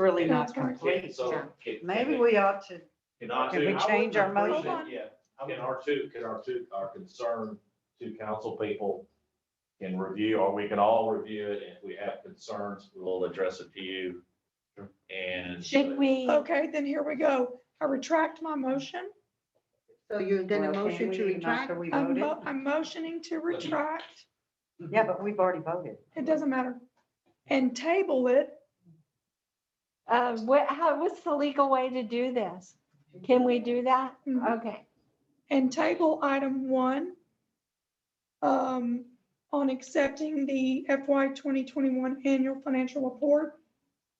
really not Can- complete. So, yeah. can- Maybe we ought to, Can R Can two, we change our Hold motion? on. yeah, can R two, can R two, our concern to council people can review, or we can all review it, and if we have concerns, we'll address it to you. And. Should we, Okay, then here we go. I retract my motion. So you did a Well, can motion to we, not retract? Um, till we I'm, voted? mo- I'm motioning to retract, Yeah, but we've already voted. it doesn't matter, and table it. uh, what, how, what's the legal way to do this? Can we do that? Mhm. Okay, And table item one um, on accepting the FY 2021 annual financial report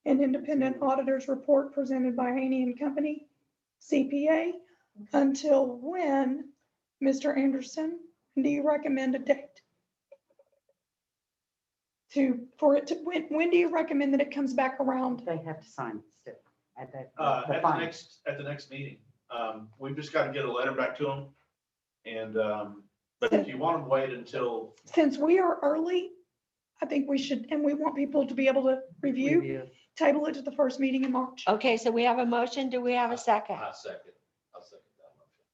and independent auditors report presented by Haney and Company CPA. Until when, Mr. Anderson, do you recommend a date? To, for it to, when, when do you recommend that it comes back Um, around? They have to sign it still at that. Uh, the at the final. next, at the next meeting. Um, we've just got to get a letter back to them. And, um, but if you want to wait until, Since we are early, I think we should, and we want people to be able to review. Review. table it to the first meeting in March. okay, so we have a motion. Do we have a second? I second, I second that motion.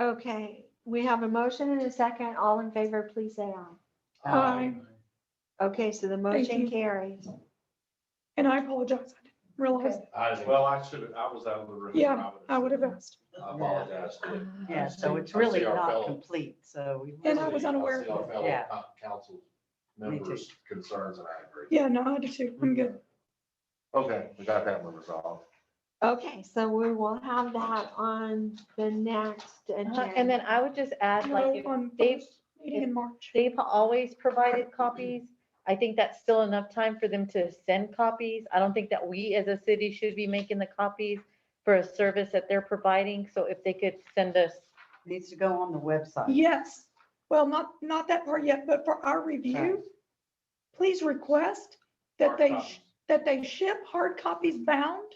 Okay, we have a motion and a second. All in favor, please say aye. Aye. Um, Okay, so the motion you. carries. And I apologize, I didn't realize, that. I, well, well, I should have, I was out of the room. Yeah, I would have I asked. I apologize to. Yeah, so it's I see really our not fellow- complete, so we. And I was see- I unaware of see our fellow Yeah. co- Council Me too. members' concerns, and I agree. Yeah, no, I do too. I'm good. Okay, we got that one resolved. Okay, so we will have that on the next Uh-huh, And then agenda. I would just add, like, if No, on Dave- first Meeting in March. they've always provided copies, I think that's still enough time for them to send copies. I don't think that we as a city should be making the copies for a service that they're providing, so if they could send us. Needs to go on the website. Yes, well, not, not that part yet, but for our review, please request that they, sh- that they ship hard copies bound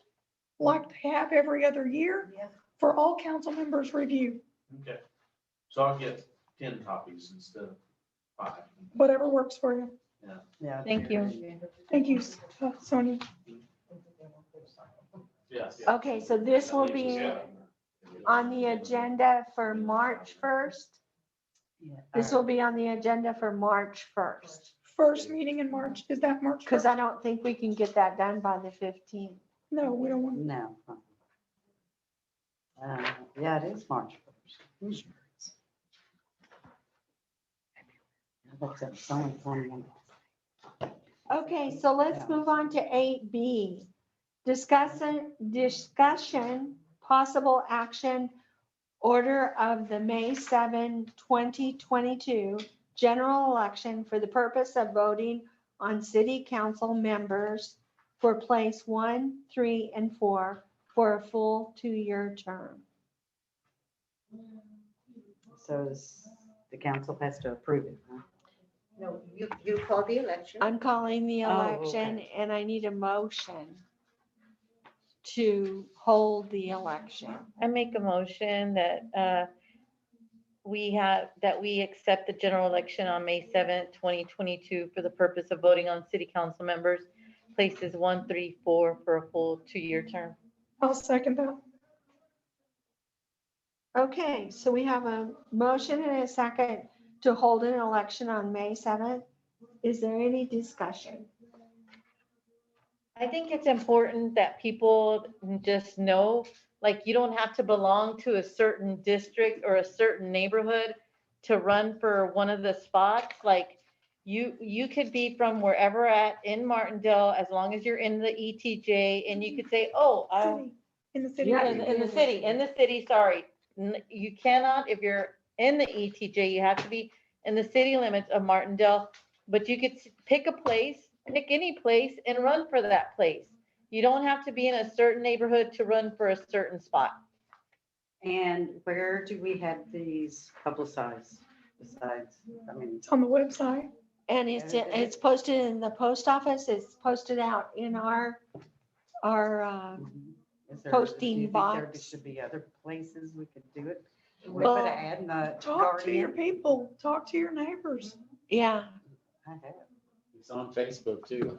like they have every other year for all council members' review, Okay. So I'll get ten copies instead of five. whatever works for you. Yeah, Thank you. Thank you, uh, Sonia. Yes. Okay, so this will be uh, on the agenda for March 1st. yeah, This all will be on the agenda for March 1st. First meeting in March, is that March? Because 1st? I don't think we can get that done by the 15th. No, we don't right. want, No. Uh, Yeah, it is March. first. That's a solid one. Okay, so let's Yeah. move on to eight B. Discussing, discussion, possible action, order of the May 7, 2022 general election for the purpose of voting on city council members for place one, three, and four for a full two-year term. So s- the council has to approve it. huh? No, you, you call the election. I'm calling the Oh, election and I need a motion to hold the election. I make a motion that uh, we have, that we accept the general election on May 7th, 2022 for the purpose of voting on city council members, places one, three, four for a full two-year term. I'll second that. Okay, so we have a motion and a second to hold an election on May 7th. Is there any discussion? I think it's important that people just know, like, you don't have to belong to a certain district or a certain neighborhood to run for one of the spots, like, you, you could be from wherever at in Martindale, as long as you're in the ETJ, and you could say, oh, i City, In the city. in, in the city, in the city, sorry. N- You cannot, if you're in the ETJ, you have to be in the city limits of Martindale. But you could s- pick a place, pick any place and run for that place. You don't have to be in a certain neighborhood to run for a certain spot. And where do we have these publicized besides, I mean, It's on the website. And it's, Yeah, it is. it's posted in the post office, it's posted out in our, our, uh, is there? Posting do you think there box. Should be other places we could do it. We Well, put an ad in the Talk to your Guardian. people, talk to your neighbors. yeah, I have. It's on Facebook too.